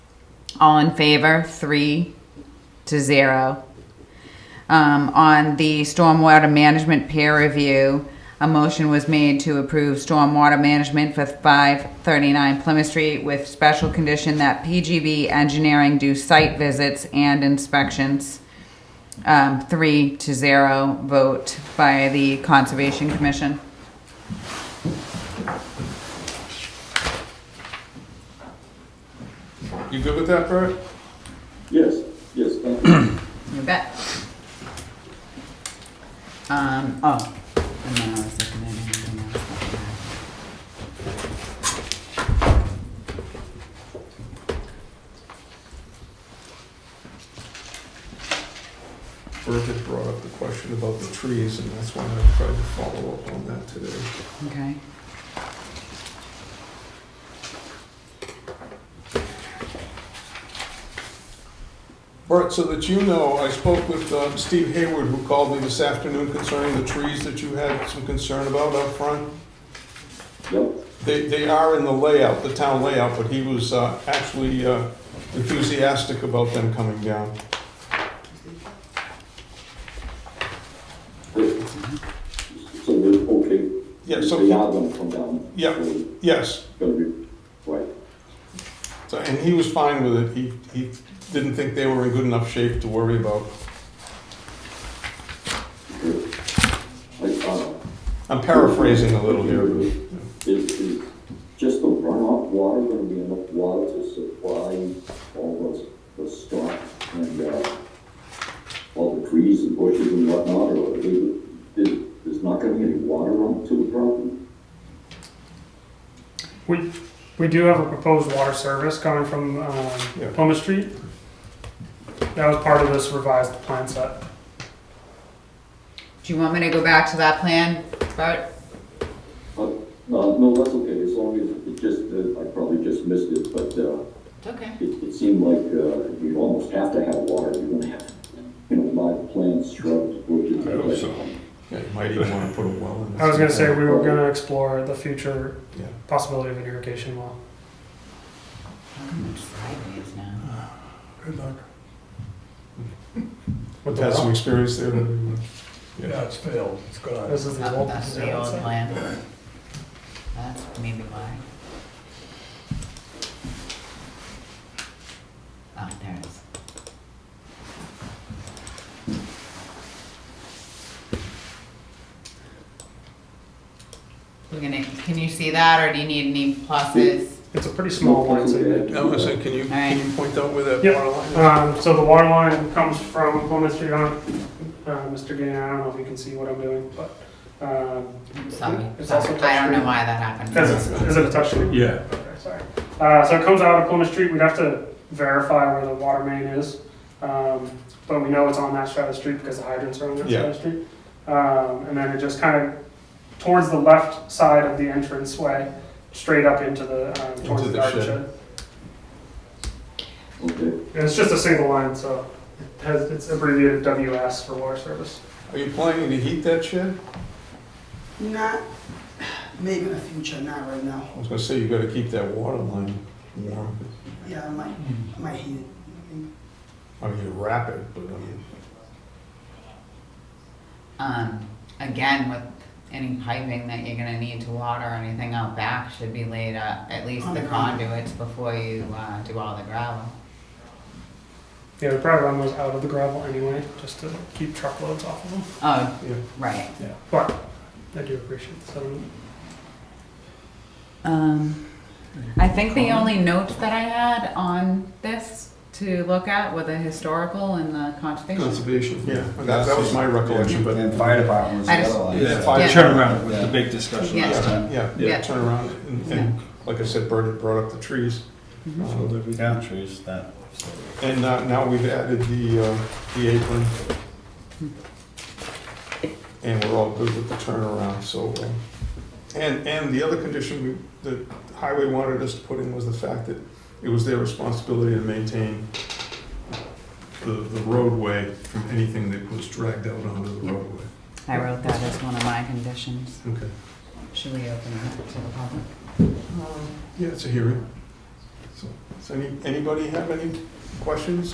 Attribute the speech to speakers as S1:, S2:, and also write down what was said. S1: All in favor, three to zero. Um, on the stormwater management peer review, a motion was made to approve stormwater management for five thirty-nine Plymouth Street with special condition that PGB engineering do site visits and inspections. Um, three to zero vote by the Conservation Commission.
S2: You good with that, Bert?
S3: Yes, yes, thank you.
S1: You bet. Um, oh, and then I was looking at anything else. that
S2: Bert had brought up the question about the trees, and that's why I tried to follow up on that today.
S1: we had. Okay.
S2: Bert, so that you know, I spoke with um, Steve Hayward, who called me this afternoon concerning the trees that you had some concern about up front.
S3: Yep,
S2: They, they are in the layout, the town layout, but he was uh, actually uh, enthusiastic about them coming down.
S3: so we're er okay. er
S2: Yeah,
S3: They
S2: so,
S3: are gonna come down.
S2: Yeah.
S3: It's
S2: yes,
S3: gonna be, right,
S2: So, and he was fine with it. He, he didn't think they were in good enough shape to worry about.
S3: good. Like, uh,
S2: I'm paraphrasing a little here, but.
S3: Is, is just the runoff water gonna be enough water to supply all the, the stock and, uh, all the trees and bushes and whatnot, or is, is, there's not gonna be any water run to the property?
S4: We, we do have a proposed water service coming from um,
S2: Yeah.
S4: Plymouth Street. That was part of this revised plan set.
S1: Do you want me to go back to that plan, Bart?
S3: Uh, no, no, that's okay, as long as it just, uh, I probably just missed it, but, uh,
S1: It's okay.
S3: it, it seemed like, uh, you almost have to have water, you're gonna have, you know, live plants, shrubs, bushes.
S5: I hope so.
S2: Yeah, you might even want to put a well in.
S4: I was gonna say, we were gonna explore the future
S2: Yeah.
S4: possibility of an irrigation well.
S1: Sideways now.
S5: Good luck.
S4: With the
S2: Had some
S4: well.
S2: experience there.
S5: Yeah, it's failed, it's gone.
S4: This is the old.
S1: That's the old plan. That's maybe why. Oh, there it is. We're gonna, can you see that, or do you need any pluses?
S4: It's a pretty small line segment.
S2: can you,
S1: can you
S2: point out where that
S4: Yep. Um, so the water line comes from Plymouth Street on, uh, Mr. Gannon, I don't know if you can see what I'm doing, but, um,
S1: I'm Sorry,
S4: It's also
S1: I don't know
S4: touchscreen.
S1: why that happened.
S4: Because it's, is it a touchscreen?
S5: Yeah.
S4: Okay, sorry. Uh, so it comes out of Plymouth Street, we'd have to verify where the water main is. Um, but we know it's on that side of the street because the hydrants are on that side of the street. Um, and then it just kind of, towards the left side of the entrance way, straight up into the, um, towards
S2: Into
S4: the
S2: the
S4: garden
S2: shed.
S4: shed.
S3: Okay,
S4: And it's just a single line, so it has, it's abbreviated WS for water service.
S2: Are you planning to heat that shed?
S6: Not, maybe in the future, not right now.
S2: I was gonna say, you gotta keep that water line warm.
S6: Yeah, I might, I might hit it.
S2: I mean, you wrap it, but I mean,
S1: Um, again, with any piping that you're gonna need to water or anything out back should be laid up, at least
S6: On
S1: the
S6: the ground.
S1: conduits before you, uh, do all the gravel.
S4: Yeah, we probably run those out of the gravel anyway, just to keep truckloads off of them.
S1: Oh,
S2: yeah.
S1: right.
S4: Yeah. But I do appreciate the settlement.
S1: Um, I think the only notes that I had on this to look at were the historical and the conservation.
S2: Conservation. Yeah, that, that was my recollection, but,
S7: And fire department was the
S1: I just-
S7: other line.
S2: Yeah,
S1: Yeah.
S2: fire-
S5: Turnaround was the big discussion
S1: Yeah.
S5: last time.
S2: yeah,
S1: Yeah.
S2: yeah, turn around, and, and, like I said, Bert had brought up the trees. Um,
S7: Yeah, trees, that.
S2: And now, now we've added the, uh, the apron. And we're all good with the turnaround, so, uh, and, and the other condition we, the highway wanted us to put in was the fact that it was their responsibility to maintain the, the roadway from anything that was dragged out onto the roadway.
S1: I wrote that as one of my conditions.
S2: Okay.
S1: Should we open it up to the public?
S2: Yeah, it's a hearing. So, does any, anybody have any questions,